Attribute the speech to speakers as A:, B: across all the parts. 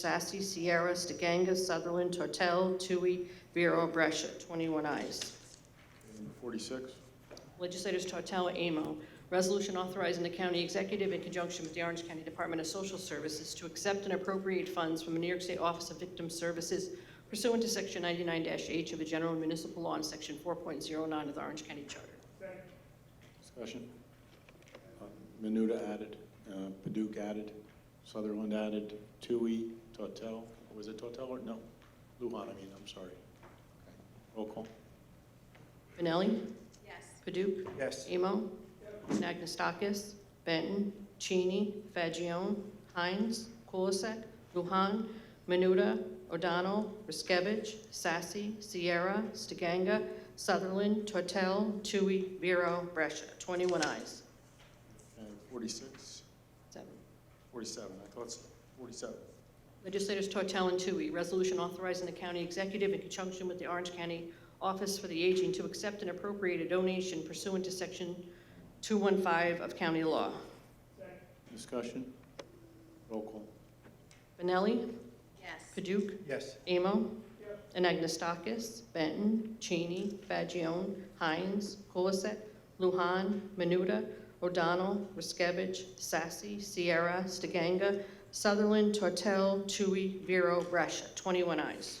A: Sassy, Sierra, Stiganga, Sutherland, Tortel, Tui, Vero, Brescia, 21 ayes.
B: Number 46,
A: Legislators Tortel, Amo. Resolution authorizing the county executive in conjunction with the Orange County Department of Social Services to accept and appropriate funds from the New York State Office of Victim Services pursuant to Section 99-H of the General Municipal Law and Section 4.09 of the Orange County Charter.
B: discussion. Uh, Menuda added, uh, Paduk added, Sutherland added, Tui, Tortel, was it Tortel or, no, Luhan, I mean, I'm sorry. Okay. Roll call.
A: Benelli?
C: yes,
A: Paduk?
D: yes,
A: Emo, Nagnestakis, Benton, Cheney, Fagion, Hines, Kulisek, Luhan, Menuda, O'Donnell, Riskevich, Sassy, Sierra, Stiganga, Sutherland, Tortel, Tui, Vero, Brescia. 21 ayes.
B: Okay, 46,
A: Seven.
B: 47, I thought so, 47.
A: Legislators Tortel and Tui, resolution authorizing the county executive in conjunction with the Orange County Office for the Aging to accept and appropriate a donation pursuant to Section 215 of county law.
B: Discussion. Roll call.
A: Benelli,
C: yes,
A: Paduk,
D: yes,
A: Amo. Anagnestakis, Benton, Cheney, Fagion, Hines, Kulisek, Luhan, Menuda, O'Donnell, Riskevich, Sassy, Sierra, Stiganga, Sutherland, Tortel, Tui, Vero, Brescia. 21 ayes.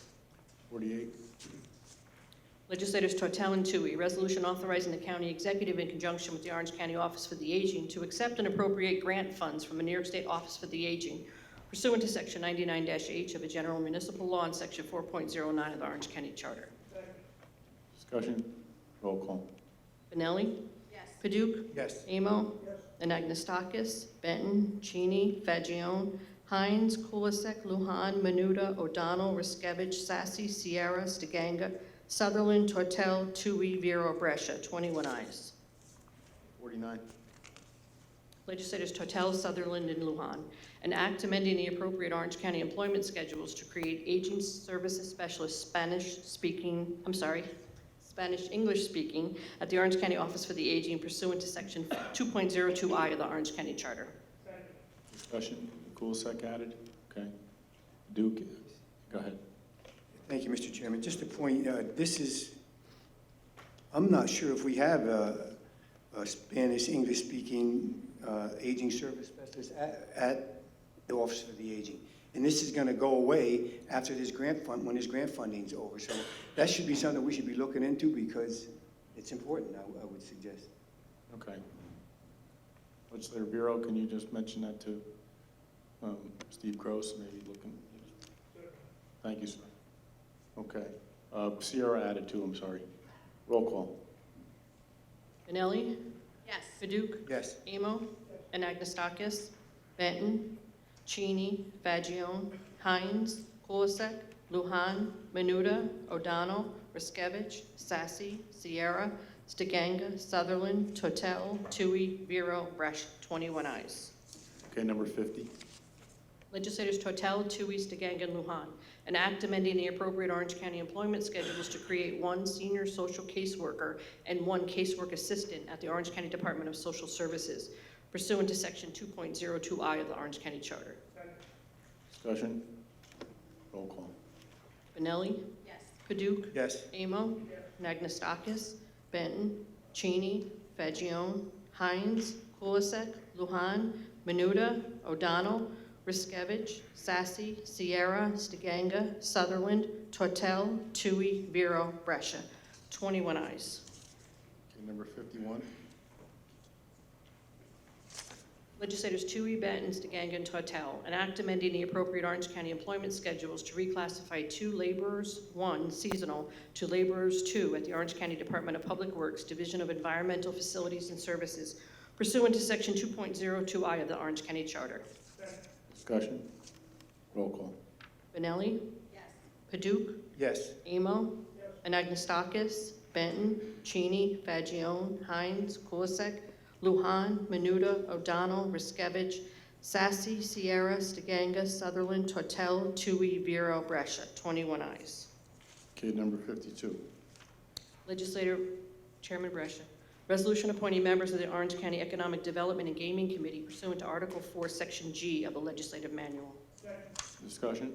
B: 48,
A: Legislators Tortel and Tui, resolution authorizing the county executive in conjunction with the Orange County Office for the Aging to accept and appropriate grant funds from the New York State Office for the Aging pursuant to Section 99-H of the General Municipal Law and Section 4.09 of the Orange County Charter.
B: discussion. Roll call.
A: Benelli?
C: yes,
A: Paduk?
D: yes,
A: Amo? Anagnestakis? Benton? Cheney? Fagion? Hines? Kulisek? Luhan? Menuda? O'Donnell? Riskevich? Sassy? Sierra? Stiganga? Sutherland? Tortel? Tui? Vero? Brescia. 21 ayes.
B: 49,
A: Legislators Tortel, Sutherland, and Luhan. An act amending the appropriate Orange County employment schedules to create aging services specialists Spanish-speaking, I'm sorry, Spanish-English-speaking at the Orange County Office for the Aging pursuant to Section 2.02I of the Orange County Charter.
B: discussion. Kulisek added, okay. Duke, go ahead.
D: thank you, Mr. Chairman. Just a point, uh, this is, I'm not sure if we have a a Spanish, English-speaking uh, aging service specialist at at the Office for the Aging. And this is going to go away after this grant fund, when this grant funding's over. So that should be something we should be looking into because it's important, I I would suggest.
B: Okay. Legislator Bureau, can you just mention that to um, Steve Gross, maybe looking? Thank you, sir. Okay. Uh, Sierra added two, I'm sorry. Roll call.
A: Benelli?
C: yes,
A: Paduk?
D: Yes,
A: Amo? Anagnestakis? Benton? Cheney? Fagion? Hines? Kulisek? Luhan? Menuda? O'Donnell? Riskevich? Sassy? Sierra? Stiganga? Sutherland? Totel? Tui? Vero? Bresch. 21 ayes.
B: Okay, number 50.
A: Legislators Totel, Tui, Stiganga, and Luhan. An act amending the appropriate Orange County employment schedules to create one senior social caseworker and one casework assistant at the Orange County Department of Social Services pursuant to Section 2.02I of the Orange County Charter.
B: Discussion. Roll call.
A: Benelli?
C: yes,
A: Paduk?
D: yes,
A: Amo? Nagnestakis? Benton? Cheney? Fagion? Hines? Kulisek? Luhan? Menuda? O'Donnell? Riskevich? Sassy? Sierra? Stiganga? Sutherland? Tortel? Tui? Vero? Brescia. 21 ayes.
B: Okay, number 51.
A: Legislators Tui, Benton, Stiganga, and Tortel, an act amending the appropriate Orange County employment schedules to reclassify two laborers, one seasonal, to laborers two at the Orange County Department of Public Works, Division of Environmental Facilities and Services pursuant to Section 2.02I of the Orange County Charter.
B: Discussion. Roll call.
A: Benelli,
C: yes,
A: Paduk,
D: yes,
A: Amo, Anagnestakis, Benton, Cheney, Fagion, Hines, Kulisek, Luhan, Menuda, O'Donnell, Riskevich, Sassy, Sierra, Stiganga, Sutherland, Tortel, Tui, Vero, Brescia. 21 ayes.
B: Okay, number 52.
A: Legislator Chairman Brescia. Resolution appointing members of the Orange County Economic Development and Gaming Committee pursuant to Article 4, Section G of the Legislative Manual.
B: Discussion?